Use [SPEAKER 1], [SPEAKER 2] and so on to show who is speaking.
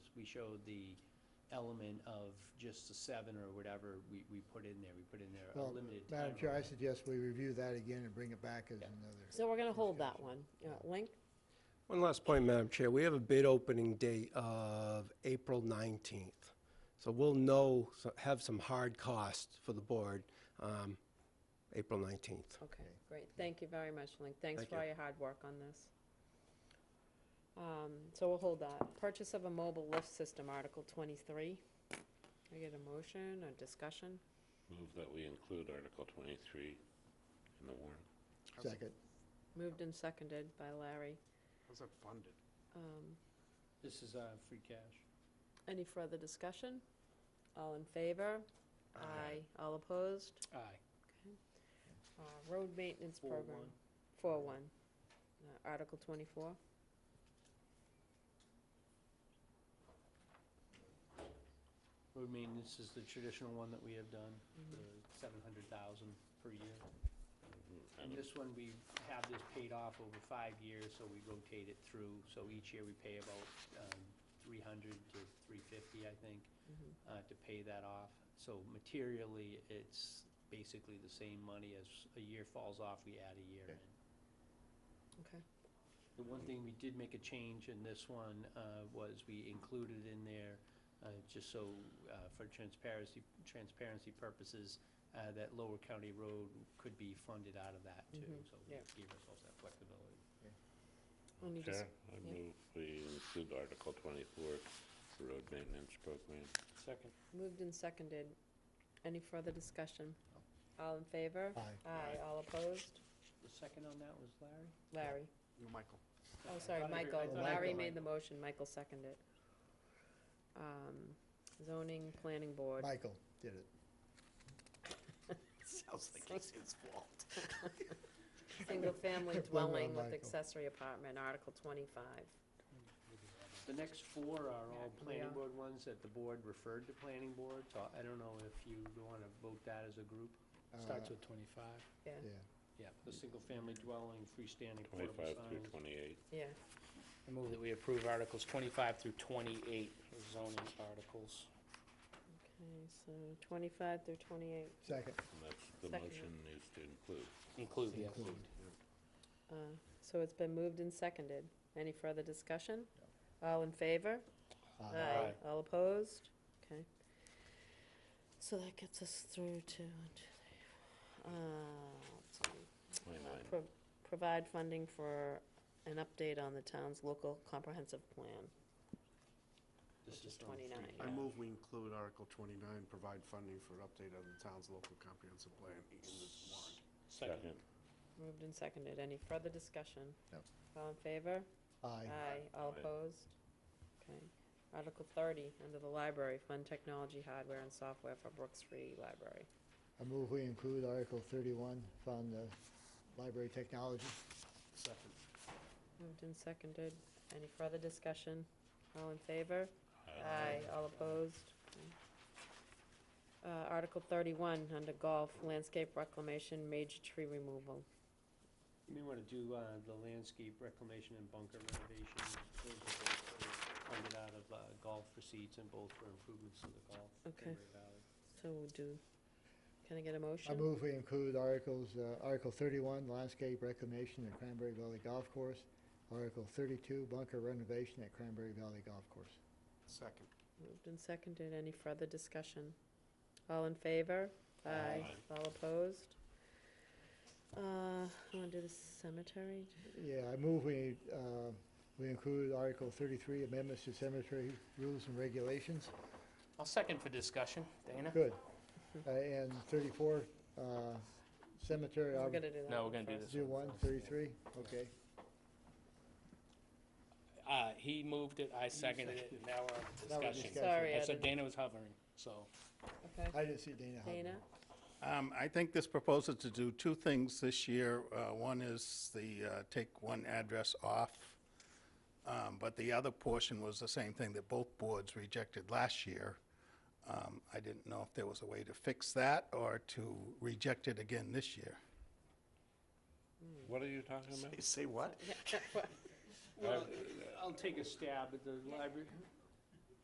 [SPEAKER 1] we showed the element of just the seven or whatever we, we put in there. We put in there a
[SPEAKER 2] Well,
[SPEAKER 1] limited time.
[SPEAKER 2] Madam Chair, I
[SPEAKER 1] limit.
[SPEAKER 2] suggest we review that again and bring it back as
[SPEAKER 1] Yeah.
[SPEAKER 2] another.
[SPEAKER 3] So we're gonna hold that one. Uh, Link?
[SPEAKER 4] One last point, Madam Chair. We have a bid opening date of April 19th. So we'll know, so- have some hard costs for the board, um, April 19th.
[SPEAKER 3] Okay, great. Thank you very much, Link. Thanks
[SPEAKER 4] Thank
[SPEAKER 3] for all
[SPEAKER 4] you.
[SPEAKER 3] your hard work on this. Um, so we'll hold that. Purchase of a mobile lift system, Article twenty-three. I get a motion, a discussion?
[SPEAKER 5] Move that we include Article 23 in the warrant.
[SPEAKER 2] Second.
[SPEAKER 3] Moved and seconded by Larry.
[SPEAKER 6] How's that funded?
[SPEAKER 3] Um,
[SPEAKER 1] This is, uh, free cash.
[SPEAKER 3] any further discussion? All in favor? Aye. All opposed?
[SPEAKER 1] Aye.
[SPEAKER 3] Uh, road maintenance
[SPEAKER 1] Four
[SPEAKER 3] program.
[SPEAKER 1] one.
[SPEAKER 3] Four one. Uh, Article twenty-four.
[SPEAKER 1] Road maintenance is the traditional one that we have done, the seven hundred thousand per year. And this one, we have this paid off over five years, so we rotate it through. So each year, we pay about um, 300 to 350, I think,
[SPEAKER 3] Mm-hmm.
[SPEAKER 1] uh, to pay that off. So materially, it's basically the same money as a year falls off, we add a year in.
[SPEAKER 3] Okay.
[SPEAKER 1] The one thing we did make a change in this one uh, was we included in there, uh, just so uh, for transparency, transparency purposes, uh, that Lower County Road could be funded out of that too.
[SPEAKER 3] Mhm,
[SPEAKER 1] So we
[SPEAKER 3] yeah.
[SPEAKER 1] gave ourselves that flexibility.
[SPEAKER 3] Any dis-
[SPEAKER 5] Chair, I
[SPEAKER 3] yeah.
[SPEAKER 5] move we include Article 24 for road maintenance program.
[SPEAKER 1] Second.
[SPEAKER 3] Moved and seconded. Any further discussion? All in favor?
[SPEAKER 2] Aye.
[SPEAKER 3] Aye, all opposed?
[SPEAKER 1] The second on that was Larry?
[SPEAKER 3] Larry.
[SPEAKER 6] You, Michael.
[SPEAKER 3] Oh, sorry,
[SPEAKER 1] thought every- I
[SPEAKER 3] Michael.
[SPEAKER 1] thought
[SPEAKER 3] Larry
[SPEAKER 1] everyone-
[SPEAKER 3] made the motion, Michael seconded. Um, Zoning Planning Board.
[SPEAKER 2] Michael did it.
[SPEAKER 6] Sounds like
[SPEAKER 3] it's
[SPEAKER 6] his fault.
[SPEAKER 3] Single-family
[SPEAKER 2] Well done,
[SPEAKER 3] dwelling with
[SPEAKER 2] Michael.
[SPEAKER 3] accessory apartment, Article twenty-five.
[SPEAKER 1] The next four are all
[SPEAKER 3] Yeah,
[SPEAKER 1] planning
[SPEAKER 3] yeah.
[SPEAKER 1] board ones that the board referred to planning board, so I don't know if you want to vote that as a group.
[SPEAKER 2] Starts
[SPEAKER 6] with 25.
[SPEAKER 3] Yeah,
[SPEAKER 2] Uh,
[SPEAKER 1] Yeah,
[SPEAKER 2] Yeah.
[SPEAKER 1] the single-family dwelling, freestanding portable
[SPEAKER 5] 25 through
[SPEAKER 1] signs.
[SPEAKER 5] 28.
[SPEAKER 3] yeah.
[SPEAKER 7] I move that we approve Articles 25 through 28, as zoning articles.
[SPEAKER 3] Okay, so twenty-five through twenty-eight.
[SPEAKER 2] Second.
[SPEAKER 5] And that's, the
[SPEAKER 3] Second.
[SPEAKER 5] motion is to include.
[SPEAKER 7] Include, yes.
[SPEAKER 2] Include.
[SPEAKER 3] Uh, So it's been moved and seconded. Any further discussion? All in favor? Aye. All opposed? Okay. So that gets us through to, one, two, three, four. Uh, let's see.
[SPEAKER 5] Wait,
[SPEAKER 3] Uh,
[SPEAKER 5] wait.
[SPEAKER 3] pro- Provide funding for an update on the town's local comprehensive plan,
[SPEAKER 1] This
[SPEAKER 3] which is
[SPEAKER 1] on free
[SPEAKER 3] 29.
[SPEAKER 6] I move we include Article 29, provide funding for an update on the town's local comprehensive plan in this warrant.
[SPEAKER 5] Second.
[SPEAKER 3] Moved and seconded. Any further discussion?
[SPEAKER 2] No.
[SPEAKER 3] All in favor?
[SPEAKER 2] Aye.
[SPEAKER 3] All
[SPEAKER 5] Aye.
[SPEAKER 3] opposed? Okay. Article 30, under the library, fund technology, hardware, and software for Brooks Free Library.
[SPEAKER 2] I move we include Article thirty-one from the library technology.
[SPEAKER 6] Second.
[SPEAKER 3] Moved and seconded. Any further discussion? All in favor? Aye. All opposed? Okay. Uh, Article thirty-one, under golf, landscape reclamation, major tree removal.
[SPEAKER 1] You may want to do uh, the landscape reclamation and bunker renovation. Those are both Funded out of uh, golf receipts and both for improvements to the golf. in
[SPEAKER 3] Okay.
[SPEAKER 1] Granbury Valley.
[SPEAKER 3] So we'll do, can I get a motion?
[SPEAKER 2] I move we include Articles, uh, Article thirty-one, landscape reclamation at Cranberry Valley Golf Course. Article thirty-two, bunker renovation at Cranberry Valley Golf Course.
[SPEAKER 6] Second.
[SPEAKER 3] Moved and seconded. Any further discussion? All in favor?
[SPEAKER 5] Aye.
[SPEAKER 3] All opposed? Uh, I want to do the cemetery.
[SPEAKER 2] Yeah, I move we, uh, we include Article thirty-three, amendments to cemetery rules and regulations.
[SPEAKER 7] I'll second for discussion. Dana?
[SPEAKER 2] Good. Uh, And 34, uh, cemetery,
[SPEAKER 3] We're
[SPEAKER 2] ob-
[SPEAKER 3] gonna do that.
[SPEAKER 7] No, we're
[SPEAKER 3] one
[SPEAKER 7] gonna do
[SPEAKER 3] first.
[SPEAKER 7] this
[SPEAKER 2] do one, 33, okay.
[SPEAKER 7] Uh, He moved it, I seconded it, and now we're
[SPEAKER 2] Now
[SPEAKER 7] on
[SPEAKER 2] we're
[SPEAKER 7] discussion.
[SPEAKER 2] discussing.
[SPEAKER 3] Sorry,
[SPEAKER 7] I
[SPEAKER 3] I
[SPEAKER 7] said
[SPEAKER 3] didn't-
[SPEAKER 7] Dana was hovering, so.
[SPEAKER 3] Okay.
[SPEAKER 2] I didn't see Dana Hubble.
[SPEAKER 3] Dana?
[SPEAKER 8] Um, I think this proposal to do two things this year. Uh, One is the, uh, take one address off, Um, but the other portion was the same thing that both boards rejected last year. Um, I didn't know if there was a way to fix that or to reject it again this year.
[SPEAKER 5] What are you talking about?
[SPEAKER 6] Say what?
[SPEAKER 1] Well, I'll take a stab at the library.